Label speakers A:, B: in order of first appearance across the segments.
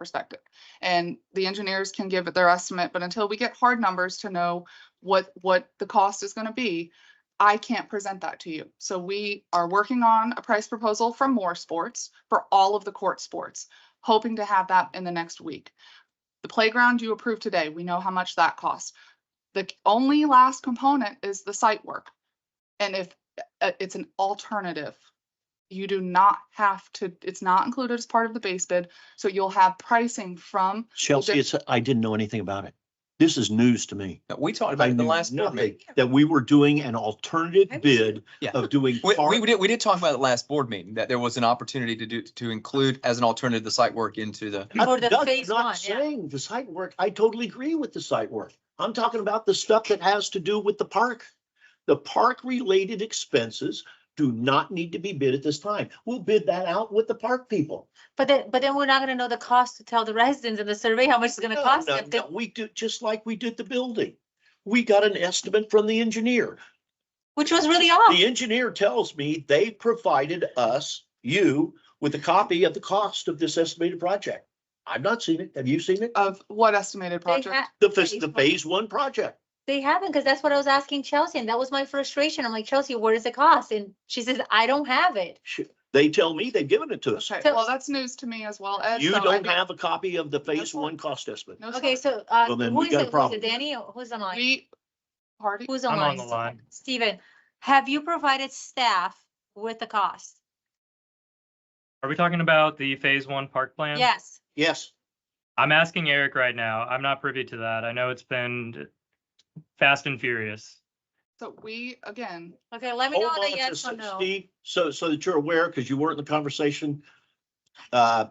A: perspective. And the engineers can give it their estimate, but until we get hard numbers to know what, what the cost is gonna be, I can't present that to you. So we are working on a price proposal from Moore Sports for all of the court sports, hoping to have that in the next week. The playground you approved today, we know how much that costs. The only last component is the site work. And if uh, it's an alternative, you do not have to, it's not included as part of the base bid. So you'll have pricing from,
B: Chelsea,
A: def-
B: it's, I didn't know anything about it. This is news to me.
C: No, We talked about
B: I
C: it in the
B: knew
C: last board
B: nothing,
C: meeting.
B: that we were doing an
D: I
B: alternative
D: was-
B: bid
C: Yeah.
B: of doing.
C: We,
B: park-
C: we, did, we did talk about it last board meeting, that there was an opportunity to do, to include as an alternative, the site work into the,
B: I'm
D: Or the
B: not-
D: phase
B: not
D: one, yeah.
B: Saying the site work, I totally agree with the site work. I'm talking about the stuff that has to do with the park. The park related expenses do not need to be bid at this time. We'll bid that out with the park people.
D: But then, but then we're not gonna know the cost to tell the residents and the survey how much it's gonna
B: No,
D: cost
B: no,
D: them. to-
B: no, We do, just like we did the building. We got an estimate from the engineer.
D: Which was really off.
B: The engineer tells me they provided us, you, with a copy of the cost of this estimated project. I've not seen it. Have you seen it?
A: of what estimated
D: They
A: project.
D: ha-
B: The, phase- the phase one project.
D: they haven't, because that's what I was asking Chelsea, and that was my frustration. I'm like, Chelsea, what is the cost? And she says, I don't have it.
B: Sh- They tell me they've given it to us.
A: Okay,
D: So-
A: well, that's news to me as well, Ed.
B: You
A: so I
B: don't
A: do-
B: have a copy of the phase
A: That's fine.
B: one cost estimate.
A: no,
D: Okay,
A: sorry.
D: so, uh,
B: Well, then
D: who
B: we
D: is
B: got a
D: it? Was
B: problem.
D: it Danny? or Who's online?
A: We, party,
D: Who's
E: I'm
D: online?
E: on the line.
D: Steven, have you provided staff with the cost?
E: Are we talking about the phase one park plan?
D: Yes.
B: Yes,
E: I'm asking Eric right now. I'm not privy to that. I know it's been fast and furious.
A: so we, again,
D: Okay, let me
B: hold
D: know the
B: on to
D: yes or
B: Steve,
D: no.
B: Steve, so, so that you're aware, because you weren't in the conversation. Uh,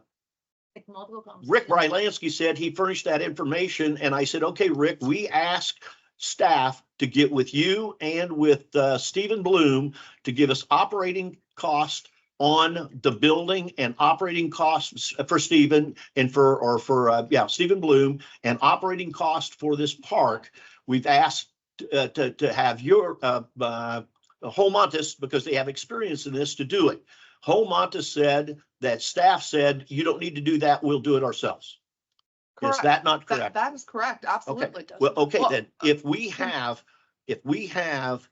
D: Like multiple conversations.
B: Rick Rylansky said he furnished that information, and I said, okay, Rick, we asked staff to get with you and with uh, Stephen Bloom to give us operating cost on the building and operating costs for Stephen and for, or for, uh, yeah, Stephen Bloom and operating cost for this park. We've asked uh, to, to have your, uh, uh, Holmontis, because they have experience in this, to do it. Holmontis said that staff said, you don't need to do that, we'll do it ourselves. Is
A: correct,
B: that not
A: that,
B: correct?
A: that is correct, absolutely.
B: Well, okay,
A: Well,
B: then, if we have, if we have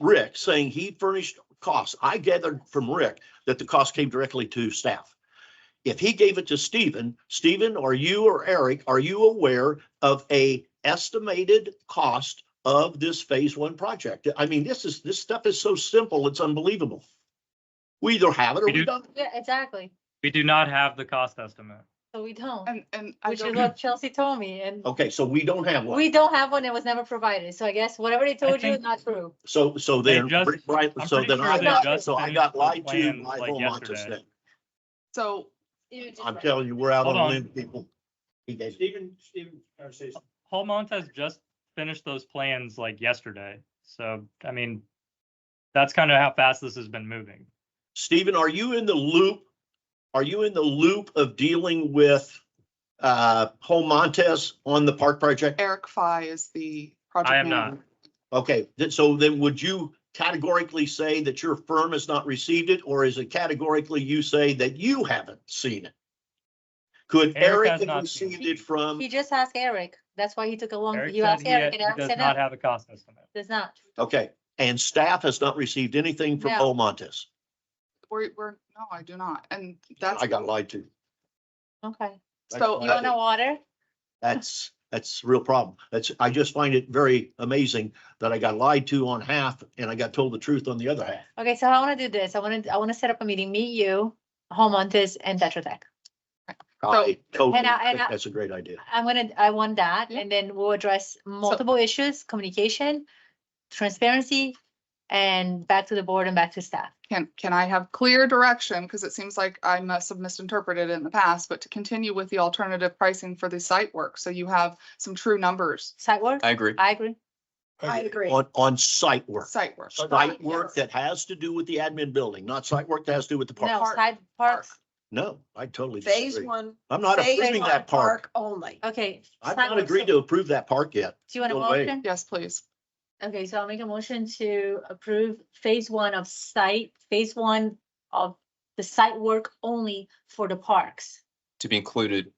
B: Rick saying he furnished costs, I gathered from Rick that the cost came directly to staff. If he gave it to Stephen, Stephen or you or Eric, are you aware of a estimated cost of this phase one project? I mean, this is, this stuff is so simple, it's unbelievable. We either have it or
E: We
B: we
E: do-
B: don't.
D: Yeah, exactly.
E: We do not have the cost estimate.
D: So we don't,
A: And, and I
D: which is
A: don't,
D: what Chelsea told me, and
B: Okay, so we don't have one.
D: We don't have one. It was never provided. So I guess whatever they told you,
E: think-
D: not true.
B: So, so
E: They
B: then,
E: just-
B: right,
E: I'm
B: so
E: pretty
B: then
E: sure
B: I
D: they
B: got,
D: just
B: so I
E: finished
B: got
E: the
B: lied to
E: plan,
B: by
E: like,
B: whole Montes
E: yesterday.
B: then.
A: so
D: You just
B: I'm
D: right.
B: telling you, we're out on
E: Hold
B: a
E: on.
B: limb, people. He gave-
F: Stephen, Stephen, or say something.
E: Paul Montez just finished those plans like yesterday. So, I mean, that's kind of how fast this has been moving.
B: Stephen, are you in the loop? Are you in the loop of dealing with, uh, Home Montes on the park project?
A: Eric Fye is the project
E: am not.
A: manager.
B: Okay, then, so then would you categorically say that your firm has not received it, or is it categorically you say that you haven't seen it? Could
E: Eric
B: Eric
E: has
B: have
E: not seen it.
B: received it from?
D: He just asked Eric. That's why he took a long,
E: Eric
D: you
E: said
D: asked
E: he-
D: Eric and
E: he
D: Eric
E: Does
D: said
E: not
D: no,
E: have a cost estimate.
D: does not.
B: Okay, and staff has not received anything from
D: No.
B: Home Montes?
A: We're, we're, no, I do not, and that's,
B: I got lied to.
D: Okay.
B: I
A: so,
B: got lied
D: You want
B: to.
D: to water?
B: That's, that's a real problem. That's, I just find it very amazing that I got lied to on half and I got told the truth on the other half.
D: Okay, so I want to do this. I want to, I want to set up a meeting, meet you, home on this and Tetra Tech.
B: I totally
D: And I- and
B: think
D: I-
B: that's a great idea.
D: I'm gonna, I want that,
A: Yeah.
D: and then we'll address multiple issues, communication, transparency, and back to the board and back to staff.
A: can, can I have clear direction? Because it seems like I must have misinterpreted it in the past, but to continue with the alternative pricing for the site work, so you have some true numbers.
D: Site work?
C: I agree.
D: I agree.
A: I agree.
B: On, on site work,
A: Site work.
B: site work that has to do with the admin building, not site work that has to do with the
D: No,
B: park.
D: side
A: Park.
D: parks.
B: No, I totally
G: Phase
B: disagree.
G: one.
B: I'm not
G: phase
B: approving
G: one
B: that park.
G: Only.
D: Okay.
B: I've
D: side
B: not
D: work.
B: agreed
D: So
B: to approve that park yet.
D: Do you want a
B: No way.
D: motion?
A: Yes, please.
D: Okay, so I'll make a motion to approve phase one of site, phase one of the site work only for the parks.
C: to be included